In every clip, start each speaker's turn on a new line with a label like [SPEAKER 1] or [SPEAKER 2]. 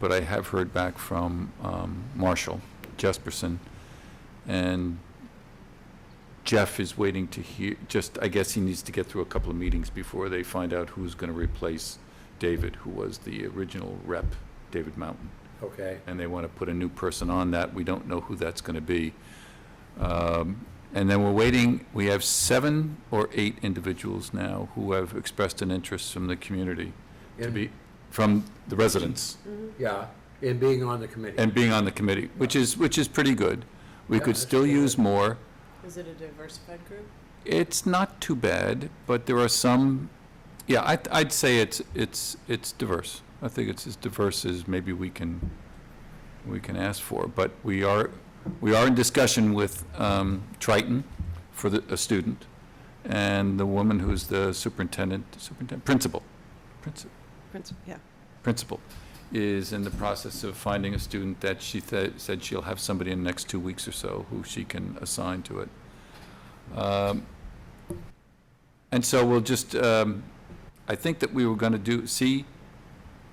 [SPEAKER 1] but I have heard back from um, Marshall Jesperson, and Jeff is waiting to hear, just, I guess he needs to get through a couple of meetings before they find out who's going to replace David, who was the original rep, David Mountain
[SPEAKER 2] Okay.
[SPEAKER 1] and they want to put a new person on that. We don't know who that's going to be. Um, And then we're waiting, we have seven or eight individuals now who have expressed an interest from the community to
[SPEAKER 2] In-
[SPEAKER 1] be, from the residents
[SPEAKER 3] Mm-hmm.
[SPEAKER 2] Yeah, in being on the committee.
[SPEAKER 1] and being on the committee, which is, which is pretty good. We
[SPEAKER 2] Yeah,
[SPEAKER 1] could
[SPEAKER 2] that's
[SPEAKER 1] still
[SPEAKER 2] pretty
[SPEAKER 1] use more.
[SPEAKER 4] Is it a diversified group?
[SPEAKER 1] It's not too bad, but there are some, yeah, I'd, I'd say it's, it's, it's diverse. I think it's as diverse as maybe we can, we can ask for, but we are, we are in discussion with, um, Triton for the, a student, and the woman who's the superintendent, superintendent, principal, principal,
[SPEAKER 4] Yeah.
[SPEAKER 1] principal, is in the process of finding a student that she th- said she'll have somebody in the next two weeks or so who she can assign to it. Um, And so we'll just, um, I think that we were going to do, see,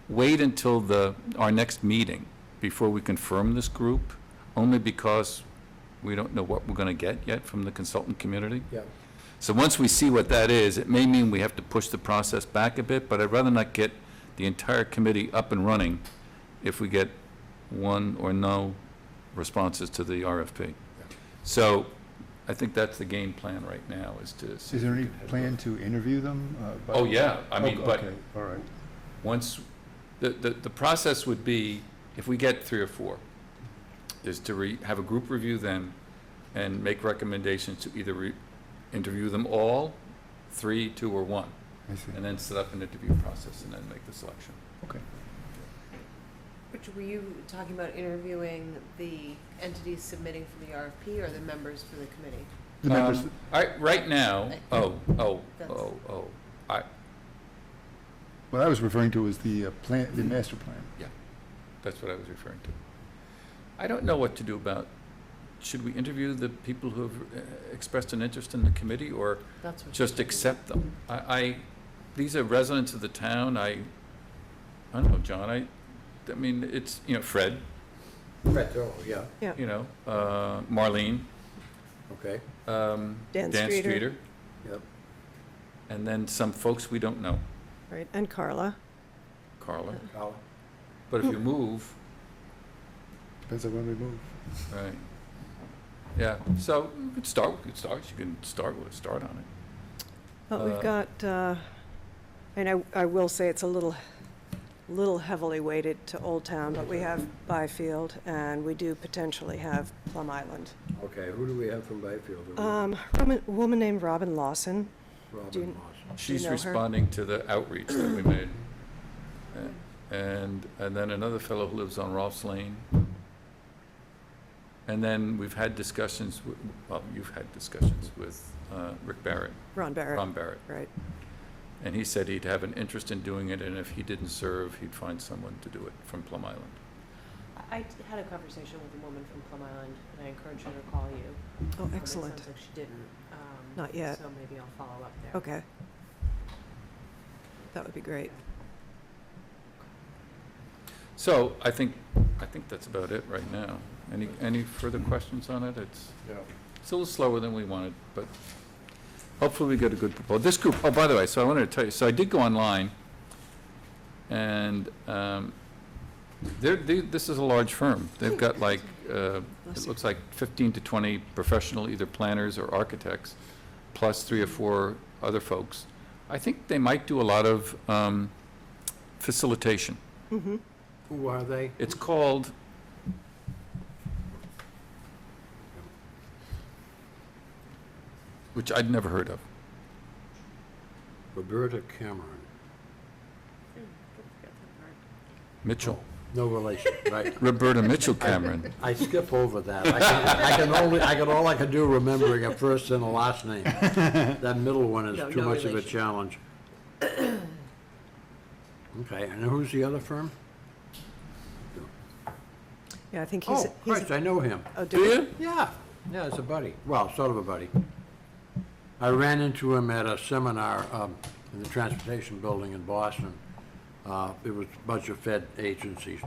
[SPEAKER 1] wait until the, our next meeting before we confirm this group, only because we don't know what we're going to get yet from the consultant community.
[SPEAKER 2] Yeah,
[SPEAKER 1] So once we see what that is, it may mean we have to push the process back a bit, but I'd rather not get the entire committee up and running if we get one or no responses to the RFP. So I think that's the game plan right now, is to,
[SPEAKER 5] Is
[SPEAKER 1] see-
[SPEAKER 5] there any plan to interview them? uh, by-
[SPEAKER 1] oh, yeah, I mean,
[SPEAKER 5] Okay,
[SPEAKER 1] but
[SPEAKER 5] okay, All right.
[SPEAKER 1] once, the, the, the process would be, if we get three or four, is to re, have a group review them and make recommendations to either re, interview them all, three, two, or one.
[SPEAKER 5] I see.
[SPEAKER 1] and then set up an interview process and then make the selection.
[SPEAKER 4] Which, were you talking about interviewing the entities submitting for the RFP or the members for the committee?
[SPEAKER 5] The members,
[SPEAKER 1] Um, All right, right now, oh, oh, oh, oh,
[SPEAKER 5] what I was referring to was the uh, plan, the master plan.
[SPEAKER 1] that's what I was referring to. I don't know what to do about, should we interview the people who have uh, expressed an interest in the committee or
[SPEAKER 4] That's what.
[SPEAKER 1] just accept them? I, I, these are residents of the town, I, I don't know, John, I, I mean, it's, you know, Fred,
[SPEAKER 2] Fred Thor, yeah,
[SPEAKER 1] you know, uh, Marlene,
[SPEAKER 2] okay,
[SPEAKER 1] um, Dan
[SPEAKER 3] Dan Streeter.
[SPEAKER 1] Streeter,
[SPEAKER 2] yep.
[SPEAKER 1] and then some folks we don't know,
[SPEAKER 3] Right, and Carla.
[SPEAKER 1] Carla.
[SPEAKER 2] Colin?
[SPEAKER 1] But if you move,
[SPEAKER 5] Depends on when we move.
[SPEAKER 1] right, yeah, so we could start, we could start, you can start with, start on it.
[SPEAKER 3] But
[SPEAKER 1] Uh,
[SPEAKER 3] we've got, uh, and I, I will say it's a little, little heavily weighted to Old Town, but we have Byfield, and we do potentially have Plum Island.
[SPEAKER 2] Okay, who do we have from Byfield? Do we-
[SPEAKER 3] Um, Roman- a woman named Robin Lawson, do you-
[SPEAKER 2] Robin Moss.
[SPEAKER 1] She's
[SPEAKER 3] know her?
[SPEAKER 1] responding to the outreach that we made. A- And, and then another fellow who lives on Rolfs Lane. And then we've had discussions, wi- well, you've had discussions with uh, Rick Barrett,
[SPEAKER 3] Ron Barrett,
[SPEAKER 1] Ron Barrett.
[SPEAKER 3] right.
[SPEAKER 1] And he said he'd have an interest in doing it, and if he didn't serve, he'd find someone to do it from Plum Island.
[SPEAKER 4] I I had a conversation with a woman from Plum Island, and I encouraged her to call you.
[SPEAKER 3] Oh,
[SPEAKER 4] but it
[SPEAKER 3] excellent,
[SPEAKER 4] Sounds like she didn't. um,
[SPEAKER 3] Not yet.
[SPEAKER 4] So maybe I'll follow up there.
[SPEAKER 3] okay. That would be great.
[SPEAKER 1] So I think, I think that's about it right now. Any, any further questions on it? It's,
[SPEAKER 2] Yeah.
[SPEAKER 1] it's a little slower than we wanted, but hopefully we get a good proposal. This group, oh, by the way, so I wanted to tell you, so I did go online, and um, they're, they- this is a large firm. They've got like, uh, it
[SPEAKER 3] Bless you.
[SPEAKER 1] looks like 15 to 20 professional, either planners or architects, plus three or four other folks. I think they might do a lot of um, facilitation.
[SPEAKER 3] Mhm.
[SPEAKER 2] Who are they?
[SPEAKER 1] It's called, which I'd never heard of.
[SPEAKER 2] Roberta Cameron,
[SPEAKER 4] Hmm, forgot that part.
[SPEAKER 1] Mitchell.
[SPEAKER 2] no relation, right?
[SPEAKER 1] Roberta Mitchell Cameron.
[SPEAKER 2] I skip over that. I can- I can only, I can, all I can do remembering a first and a last name. That middle one
[SPEAKER 4] No,
[SPEAKER 2] is too
[SPEAKER 4] no
[SPEAKER 2] much of a
[SPEAKER 4] relation.
[SPEAKER 2] challenge. Okay, and who's the other firm?
[SPEAKER 3] Yeah, I think he's,
[SPEAKER 2] Oh,
[SPEAKER 3] he's
[SPEAKER 2] Christ, I know him.
[SPEAKER 3] a different,
[SPEAKER 2] Yeah, yeah, it's a buddy. Well, sort of a buddy. I ran into him at a seminar um, in the transportation building in Boston. Uh, It was a bunch of Fed agencies,